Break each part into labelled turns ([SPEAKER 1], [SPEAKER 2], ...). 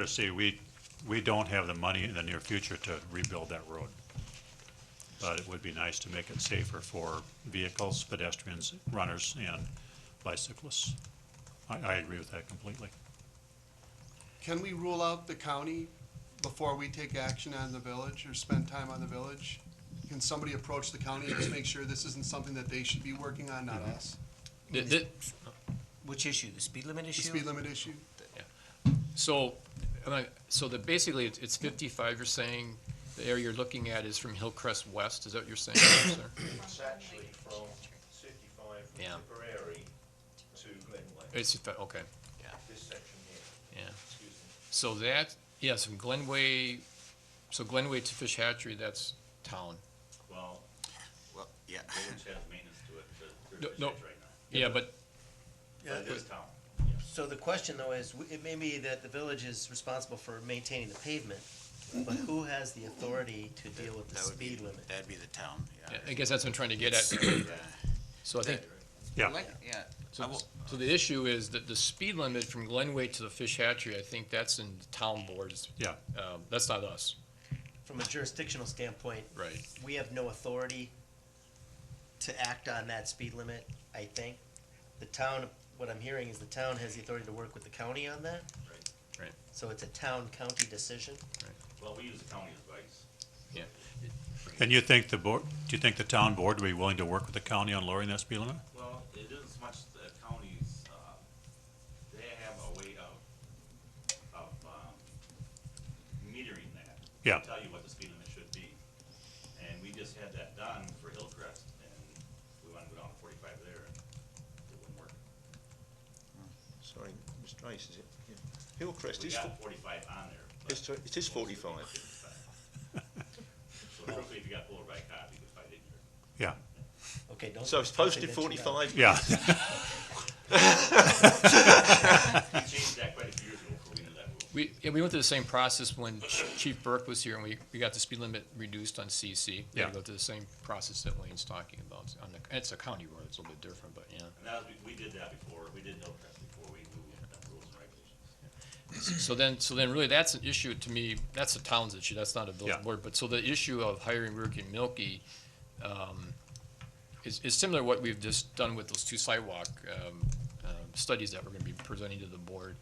[SPEAKER 1] to see, we, we don't have the money in the near future to rebuild that road. But it would be nice to make it safer for vehicles, pedestrians, runners, and bicyclists. I, I agree with that completely.
[SPEAKER 2] Can we rule out the county before we take action on the village or spend time on the village? Can somebody approach the county and just make sure this isn't something that they should be working on, not us?
[SPEAKER 3] Th- th-
[SPEAKER 4] Which issue? The speed limit
[SPEAKER 2] The
[SPEAKER 4] issue?
[SPEAKER 2] speed limit issue?
[SPEAKER 3] So, am I- so that basically it's- it's fifty-five, you're saying, the area you're looking at is from Hillcrest West, is that what you're saying, sir?
[SPEAKER 5] It's actually from fifty-five from
[SPEAKER 3] Yeah.
[SPEAKER 5] Tipperary to Glenway,
[SPEAKER 3] It's, if I- okay,
[SPEAKER 5] this section here,
[SPEAKER 3] yeah.
[SPEAKER 5] excuse me.
[SPEAKER 3] So that, yes, from Glenway, so Glenway to Fish Hatchery, that's town.
[SPEAKER 5] Well,
[SPEAKER 6] Well, yeah.
[SPEAKER 5] they wouldn't have maintenance to it, but
[SPEAKER 3] No,
[SPEAKER 5] they're
[SPEAKER 3] no.
[SPEAKER 5] just right now.
[SPEAKER 3] Yeah, but,
[SPEAKER 4] Yeah.
[SPEAKER 5] But it's town.
[SPEAKER 4] So the question though is, w- it may be that the village is responsible for maintaining the pavement, but who has the authority to deal with the
[SPEAKER 6] That would be-
[SPEAKER 4] speed limit?
[SPEAKER 6] That'd be the town,
[SPEAKER 3] yeah,
[SPEAKER 6] yeah.
[SPEAKER 3] I guess that's what I'm trying to get at. So I think,
[SPEAKER 1] Yeah.
[SPEAKER 6] Like, yeah, I
[SPEAKER 3] so
[SPEAKER 6] will,
[SPEAKER 3] so the issue is that the speed limit from Glenway to the Fish Hatchery, I think that's in the town boards.
[SPEAKER 1] Yeah.
[SPEAKER 3] Um, That's not us,
[SPEAKER 4] From a jurisdictional standpoint,
[SPEAKER 3] right?
[SPEAKER 4] we have no authority to act on that speed limit, I think. The town, what I'm hearing is the town has the authority to work with the county on that?
[SPEAKER 5] Right.
[SPEAKER 3] Right.
[SPEAKER 4] So it's a town-county decision?
[SPEAKER 5] Well, we use the county advice.
[SPEAKER 1] And you think the board, do you think the town board would be willing to work with the county on lowering that speed limit?
[SPEAKER 5] Well, it isn't as much the counties, uh, they have a way of, of, um, metering that. They
[SPEAKER 1] Yeah.
[SPEAKER 5] Tell you what the speed limit should be. And we just had that done for Hillcrest and we wanted to go down to forty-five there and it wouldn't work.
[SPEAKER 7] Sorry, Mr. Rice, is it? Yeah. Hillcrest
[SPEAKER 5] We
[SPEAKER 7] is, fo-
[SPEAKER 5] got forty-five on there. but
[SPEAKER 7] it's, it is forty-five.
[SPEAKER 5] So hopefully if you got pulled by a cop, you could fight it here.
[SPEAKER 1] Yeah,
[SPEAKER 4] Okay, don't.
[SPEAKER 7] So it's
[SPEAKER 4] don't say
[SPEAKER 7] posted
[SPEAKER 4] that too loud.
[SPEAKER 7] forty-five.
[SPEAKER 1] yeah,
[SPEAKER 5] We changed that quite a few years ago before we knew that rule.
[SPEAKER 3] We, yeah, we went through the same process when Ch- Chief Burke was here and we, we got the speed limit reduced on CC. We had
[SPEAKER 1] Yeah.
[SPEAKER 3] to go through the same process that Wayne's talking about on the, it's a county road, it's a little bit different, but yeah.
[SPEAKER 5] And that was, we, we did that before, we did Hillcrest before we moved the rules and regulations.
[SPEAKER 3] So then, so then really that's an issue to me, that's a town's issue, that's not a
[SPEAKER 1] Yeah.
[SPEAKER 3] village board, but so the issue of hiring Ricky and Milky, um, is, is similar to what we've just done with those two sidewalk, um, um, studies that we're gonna be presenting to the board.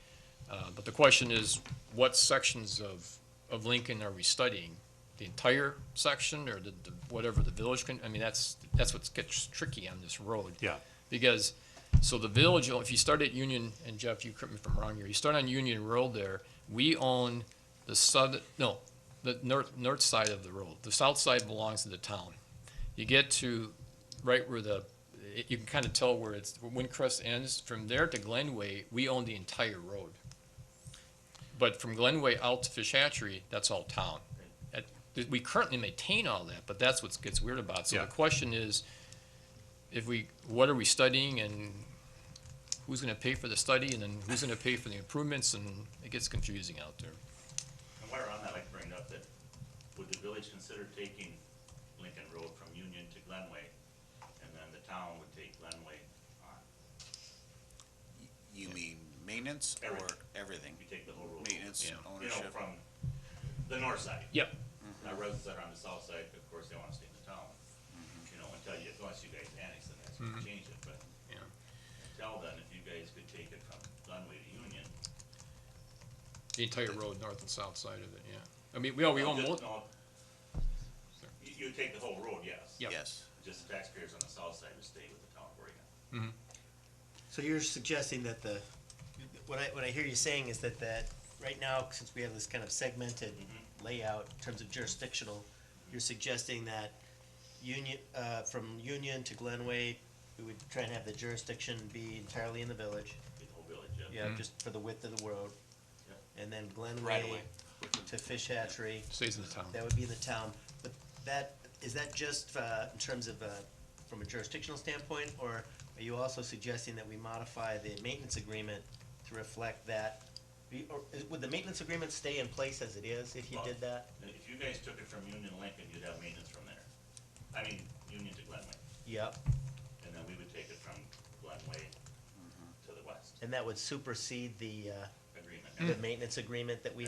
[SPEAKER 3] Uh, but the question is, what sections of, of Lincoln are we studying? The entire section or the, the, whatever the village can, I mean, that's, that's what gets tricky on this road.
[SPEAKER 1] yeah,
[SPEAKER 3] Because, so the village, if you start at Union, and Jeff, you correct me if I'm wrong here, you start on Union Road there, we own the southern, no, the north, north side of the road. The south side belongs to the town. You get to right where the, it- you can kind of tell where it's, where Windcrest ends, from there to Glenway, we own the entire road. But from Glenway out to Fish Hatchery, that's all town. That- We currently maintain all that, but that's what gets weird about. it. So
[SPEAKER 1] Yeah.
[SPEAKER 3] the question is, if we, what are we studying and who's gonna pay for the study and then who's gonna pay for the improvements and it gets confusing out there.
[SPEAKER 5] And while we're on that, I'd like to bring up that, would the village consider taking Lincoln Road from Union to Glenway? And then the town would take Glenway on,
[SPEAKER 6] you mean maintenance or
[SPEAKER 5] Everything.
[SPEAKER 6] everything?
[SPEAKER 5] we take the whole road. over.
[SPEAKER 6] Maintenance,
[SPEAKER 3] Yeah.
[SPEAKER 5] You know,
[SPEAKER 6] ownership,
[SPEAKER 5] from the north side.
[SPEAKER 3] Yep.
[SPEAKER 5] Now residents that are on the south side, of course, they wanna stay in the town,
[SPEAKER 6] Mm-hmm.
[SPEAKER 5] you know, until you, unless you guys annex, then that's gonna change it, but.
[SPEAKER 3] Yeah.
[SPEAKER 5] Until then, if you guys could take it from Glenway to Union.
[SPEAKER 3] The entire road, north and south side of it, yeah. I mean, we, all- we Oh, own both,
[SPEAKER 5] Just- no. You, you take the whole road, yes.
[SPEAKER 3] Yeah.
[SPEAKER 6] yes.
[SPEAKER 5] Just the taxpayers on the south side would stay with the town of Oregon.
[SPEAKER 4] So you're suggesting that the, what I, what I hear you saying is that that, right now, since we have this kind of segmented
[SPEAKER 5] Mm-hmm.
[SPEAKER 4] layout in terms of jurisdictional, you're suggesting that Union, uh, from Union to Glenway, we would try and have the jurisdiction be entirely in the village.
[SPEAKER 5] the whole village, yeah.
[SPEAKER 4] Yeah, just for the width of the road. And then
[SPEAKER 5] Mm-hmm. Right
[SPEAKER 4] Glenway
[SPEAKER 5] away.
[SPEAKER 4] to Fish Hatchery,
[SPEAKER 3] stays in the town.
[SPEAKER 4] that would be in the town. But that, is that just uh, in terms of, uh, from a jurisdictional standpoint? Or are you also suggesting that we modify the maintenance agreement to reflect that? We- or is- Would the maintenance agreement stay in place as it is if you did that?
[SPEAKER 5] And if you guys took it from Union to Lincoln, you'd have maintenance from there. I mean, Union to Glenway,
[SPEAKER 4] Yep.
[SPEAKER 5] and then we would take it from Glenway to the west,
[SPEAKER 4] And that would supersede the, uh,
[SPEAKER 5] agreement. Mm.
[SPEAKER 4] the maintenance agreement that we